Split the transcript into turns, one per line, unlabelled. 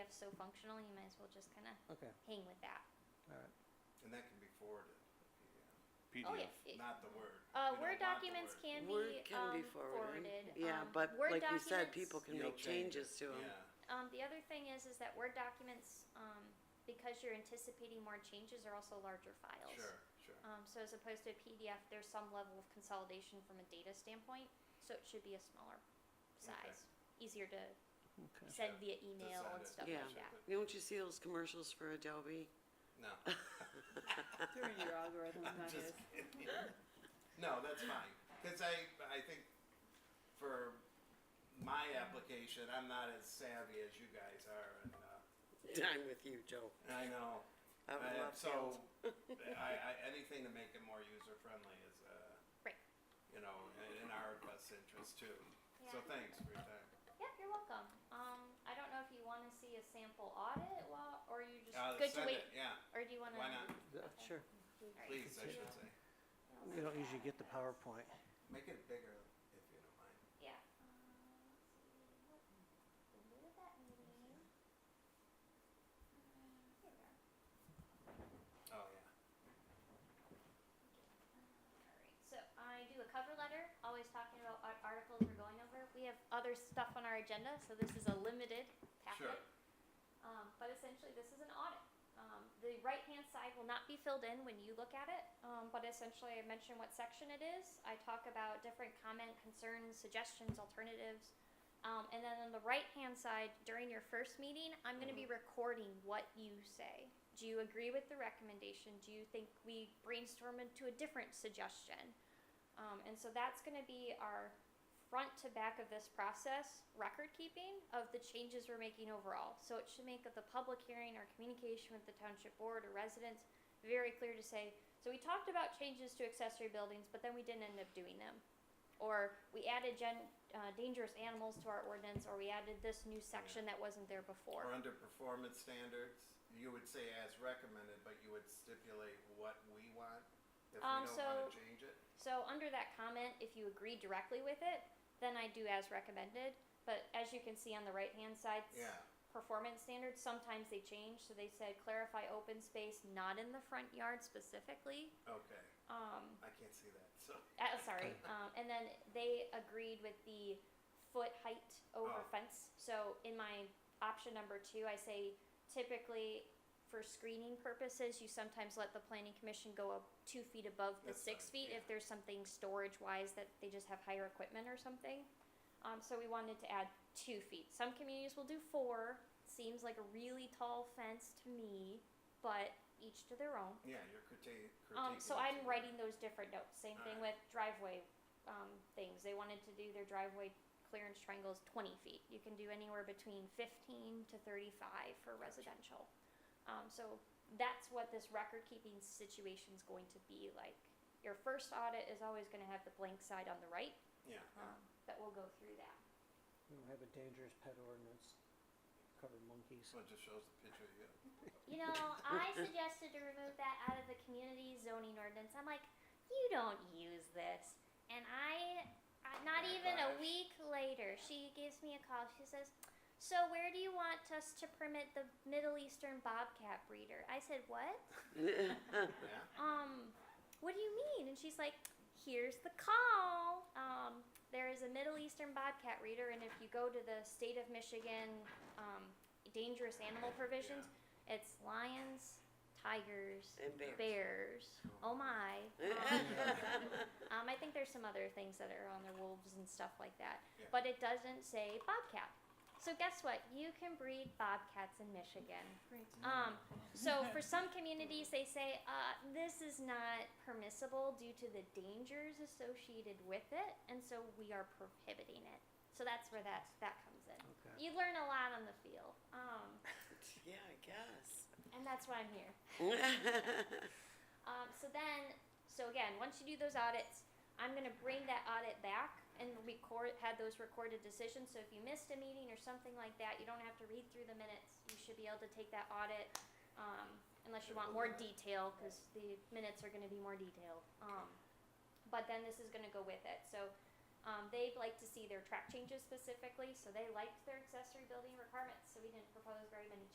so functional, you might as well just kind of
Okay,
hang with that.
all right.
And that can be forwarded, yeah.
PDF.
Oh, yeah. it-
not the word.
Uh,
We don't
Word
want the
documents
word.
can
Word
be,
can be
um,
forwarded.
forwarded.
Yeah,
Um,
but
Word
like you said,
documents-
people can
You'll
make
change it.
changes to them.
Yeah,
Um, the other thing is, is that Word documents, um, because you're anticipating more changes, are also larger files.
sure, sure.
Um, so as opposed to a PDF, there's some level of consolidation from a data standpoint, so it should be a smaller
Okay.
size, easier to
Okay.
send
Sure.
via
To
email
send
and
it,
stuff
Yeah.
like that.
Don't you see those commercials for Adobe?
No.
Through your algorithm,
I'm
that is.
just kidding. No, that's fine, cause I, I think for my application, I'm not as savvy as you guys are and, uh,
I'm with you, Joe.
I know.
I would
I-
love
So,
to.
I, I, anything to make it more user friendly is, uh,
Right.
you know, in- in our best interest too. So
Yeah.
thanks for your time.
Yeah, you're welcome. Um, I don't know if you want to see a sample audit, while, or you just
Uh,
good to
send
wait,
it, Yeah,
or do you want to?
why not?
Yeah, Sure.
Please, I should say.
We don't usually get the PowerPoint.
Make it bigger if you don't mind.
Yeah. Uh, let's see. What- where did that meeting? Uh, here we are.
Oh, yeah.
Alright, So I do a cover letter, always talking about ar- articles we're going over. We have other stuff on our agenda, so this is a limited
Sure.
packet. Um, but essentially, this is an audit. Um, the right-hand side will not be filled in when you look at it, um, but essentially, I mention what section it is. I talk about different comment, concerns, suggestions, alternatives. Um, and then on the right-hand side, during your first meeting, I'm going to be recording what you say. Do you agree with the recommendation? Do you think we brainstorm into a different suggestion? Um, and so that's going to be our front to back of this process record keeping of the changes we're making overall. So it should make the public hearing or communication with the township board or residents very clear to say, so we talked about changes to accessory buildings, but then we didn't end up doing them. Or we added gen, uh, dangerous animals to our ordinance, or we added this new section that wasn't there before.
Or under performance standards, you would say as recommended, but you would stipulate what we want if we
Um,
don't
so-
wanna change it?
So under that comment, if you agree directly with it, then I do as recommended. But as you can see on the right-hand side, s-
Yeah,
performance standards, sometimes they change. So they said clarify open space, not in the front yard specifically.
okay.
Um,
I can't see that, so.
uh, sorry. Um, and then they agreed with the foot height over
Oh.
fence. So in my option number two, I say typically for screening purposes, you sometimes let the planning commission go up two feet above the
That's
six feet
fine,
if
yeah.
there's something storage wise that they just have higher equipment or something. Um, so we wanted to add two feet. Some communities will do four. Seems like a really tall fence to me, but each to their own.
Yeah, you're critiquing.
Um, so
critiquing
I'm
it.
writing those different notes. Same thing with driveway um, things. They wanted to do their driveway clearance triangles 20 feet. You can do anywhere between 15 to 35 for residential. Um, so that's what this record keeping situation is going to be like. Your first audit is always going to have the blank side on the right,
Yeah,
um, but we'll go through that.
We don't have a dangerous pet ordinance. Cover monkeys.
so it just shows the picture you got.
You know, I suggested to remove that out of the community zoning ordinance. I'm like, you don't use this. And I, I not even a
Backlash.
week later, she gives me a call. She says, So where do you want us to permit the Middle Eastern bobcat breeder? I said, What?
Yeah,
Um, what do you mean? And she's like, Here's the call. Um, there is a Middle Eastern bobcat reader, and if you go to the state of Michigan um, dangerous animal provisions, it's lions, tigers,
And bears.
bears. Oh my. Um, um, I think there's some other things that are on there, wolves and stuff like that.
Yeah.
But it doesn't say bobcat. So guess what? You can breed bobcats in Michigan.
Great.
Um, so for some communities, they say uh, this is not permissible due to the dangers associated with it, and so we are prohibiting it. So that's where that that comes in.
Okay.
You learn a lot on the field, um,
Yeah, I guess.
and that's why I'm here. Um, so then, so again, once you do those audits, I'm gonna bring that audit back and record, had those recorded decisions, so if you missed a meeting or something like that, you don't have to read through the minutes, you should be able to take that audit, um, unless you want more detail, cause the minutes are gonna be more detailed, um, but then this is gonna go with it, so, um, they'd like to see their track changes specifically, so they liked their accessory building requirements, so we didn't propose very many